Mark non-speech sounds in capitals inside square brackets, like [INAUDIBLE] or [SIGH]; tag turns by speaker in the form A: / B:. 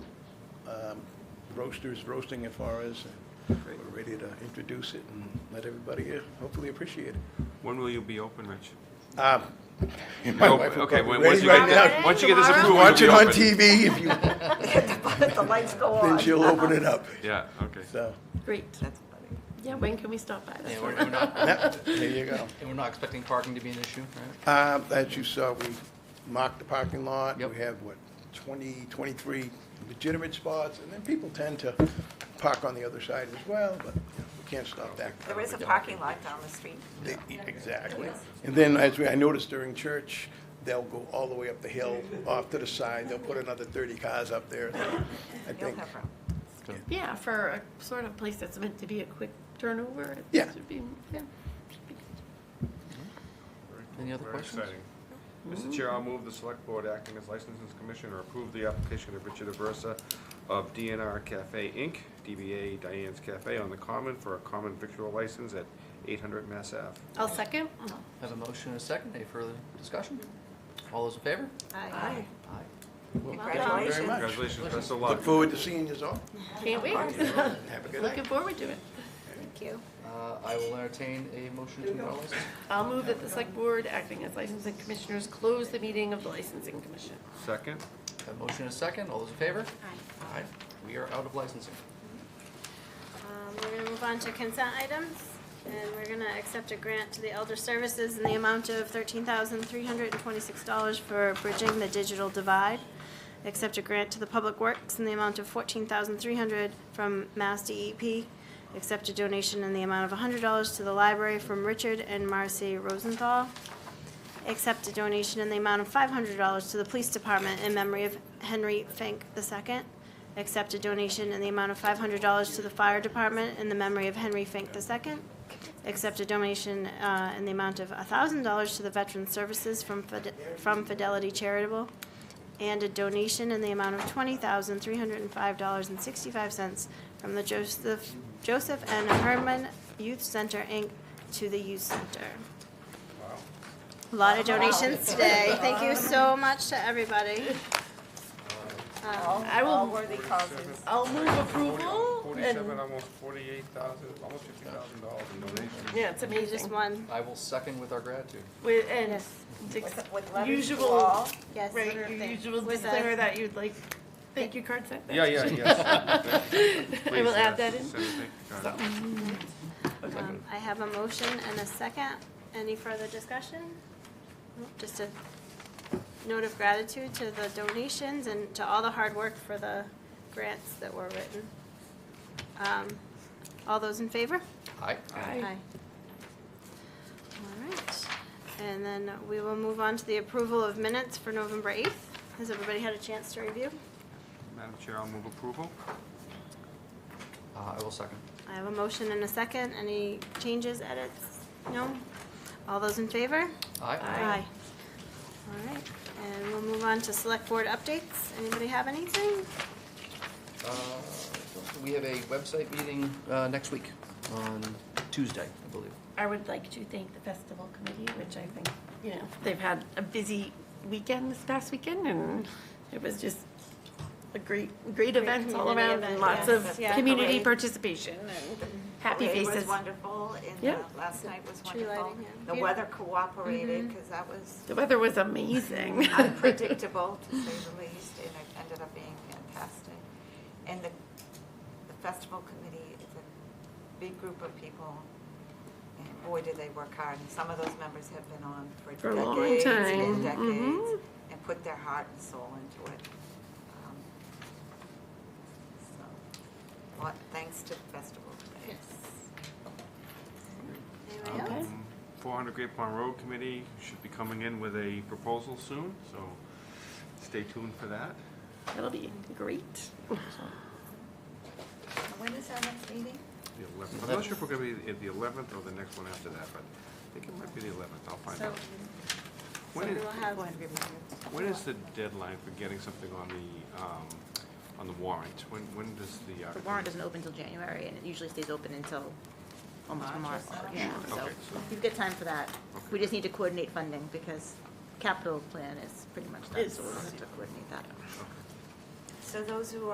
A: um, roasters roasting it for us. We're ready to introduce it and let everybody uh, hopefully appreciate it.
B: When will you be open, Rich?
A: Um, My
B: Oh,
A: wife will
B: okay,
A: probably
B: when-
A: ready
B: once you
A: right
B: get
A: now.
B: this, once you get this
A: If you
B: approved, we'll
A: watch
B: be
A: it on
B: open.
A: TV, if you,
C: The lights go
A: then
C: on.
A: she'll open it up,
B: Yeah, okay.
A: so,
D: Great.
C: That's funny.
D: Yeah, when can we stop by? That's
E: And
D: what-
E: we're, we're not, [LAUGHS]
A: yep, there you go.
E: and we're not expecting parking to be an issue, right?
A: Um, As you saw, we marked the parking lot.
E: Yep.
A: We have, what, 20, 23 legitimate spots, and then people tend to park on the other side as well, but you know, we can't stop that.
C: There is a parking lot down the street.
A: They- Exactly. And then, as we- I noticed during church, they'll go all the way up the hill, off to the side, they'll put another 30 cars up there, so I
C: You'll
A: think.
C: have room.
D: Yeah, for a sort of place that's meant to be a quick turnover. it
A: Yeah.
D: should be- yeah.
E: Any other
B: Very
E: questions? Mm-hmm.
B: exciting. Mr. Chair, I'll move the Select Board acting as licensing commissioner approve the application of Richard Aversa of DNR Cafe Inc., DBA Diane's Cafe on the Common for a common victual license at 800 Mass Ave.
D: I'll second.
E: Have a motion and a second, any further discussion? All those in favor?
C: Aye.
E: Aye.
A: Thank you very
C: Congratulations.
A: much.
B: Congratulations, best of
A: Look
B: luck.
A: forward to seeing you all.
D: Can't wait.
A: Have a good night.
D: Looking forward to it.
C: Thank you.
E: Uh, I will entertain a motion to withdraw license.
D: I'll move that the select board acting as licensing commissioners close the meeting of the licensing commission.
B: Second?
E: Have a motion and a second, all those in favor? Aye. Aye, we are out of licensing.
F: Um, We're going to move on to consent items, and we're going to accept a grant to the Elder Services in the amount of $13,326 for bridging the digital divide. Accept a grant to the Public Works in the amount of $14,300 from Mass DEP. Accept a donation in the amount of $100 to the library from Richard and Marcy Rosenthal. Accept a donation in the amount of $500 to the Police Department in memory of Henry Fink II. Accept a donation in the amount of $500 to the Fire Department in the memory of Henry Fink II. Accept a donation uh, in the amount of $1,000 to the Veteran Services from Fide- from Fidelity Charitable. And a donation in the amount of $20,305.65 from the Joseph Joseph N. Herman Youth Center, Inc., to the Youth Center. A lot of donations today. Thank you so much to everybody. Um,
C: All
D: I will-
C: all worthy causes.
D: I'll move approval
G: Forty-seven,
D: and,
G: almost forty-eight thousand, almost fifty thousand dollars in donations.
D: yeah, it's
F: You just
D: amazing.
F: won.
E: I will second with our gratitude.
D: With, and
F: Yes.
D: ex-
C: With- with letters to
D: usual,
C: all.
F: Yes.
D: right, your usual
F: With
D: disclaimer
F: us.
D: that you'd like, thank you card sent.
B: Yeah, yeah, yes.
D: [LAUGHS] I will add that in.
B: in.
F: Um, I have a motion and a second. Any further discussion? Nope, Just a note of gratitude to the donations and to all the hard work for the grants that were written. Um, All those in favor?
E: Aye.
F: Aye. All right, and then we will move on to the approval of minutes for November 8th. Has everybody had a chance to review?
B: Madam Chair, I'll move approval.
E: Uh, I will second.
F: I have a motion and a second. Any changes, edits? No? All those in favor?
E: Aye.
F: All right, and we'll move on to select board updates. Anybody have anything?
E: Uh, We have a website meeting uh, next week on Tuesday, I believe.
D: I would like to thank the festival committee, which I think, you know, they've had a busy weekend this past weekend, and it was just a great, great event all
F: community
D: around, and
F: event,
D: lots
F: yes,
D: of
F: yeah.
D: community
F: Parade.
D: participation and happy
C: Parade was
D: faces.
C: wonderful, and
D: Yeah.
C: uh, last night was
F: Tree
C: wonderful.
F: lighting, yeah.
C: The
D: Yeah. Mm-hmm.
C: weather cooperated, because that was
D: The weather was
F: [LAUGHS]
D: amazing.
C: unpredictable, to say the least, and it ended up being fantastic. And the, the festival committee is a big group of people, and boy, did they work hard. And some of those members have been on for
D: For a long
C: decades
D: time,
C: and
D: mhm.
C: decades, and put their heart and soul into it. Um, So, lot, thanks to the festival committee.
F: Anybody else?
B: Um, 400 Great Pond Road Committee should be coming in with a proposal soon, so stay tuned for that.
D: That'll be great.
C: And When is our next meeting?
B: The 11th. I'm not sure if we're going to be at the 11th or the next one after that, but I think it might be the 11th. I'll find
F: So
B: out. When
F: we
B: is,
F: will have,
C: Go ahead, remind me.
B: when is the deadline for getting something on the, um, on the warrant? When, when does the? uh,
H: The warrant doesn't open until January, and it usually stays open until almost March, yeah, so
B: Okay, so-
H: you've got time for that. We just need to coordinate funding, because capital plan is pretty much done, so we'll have to coordinate that.
C: So those who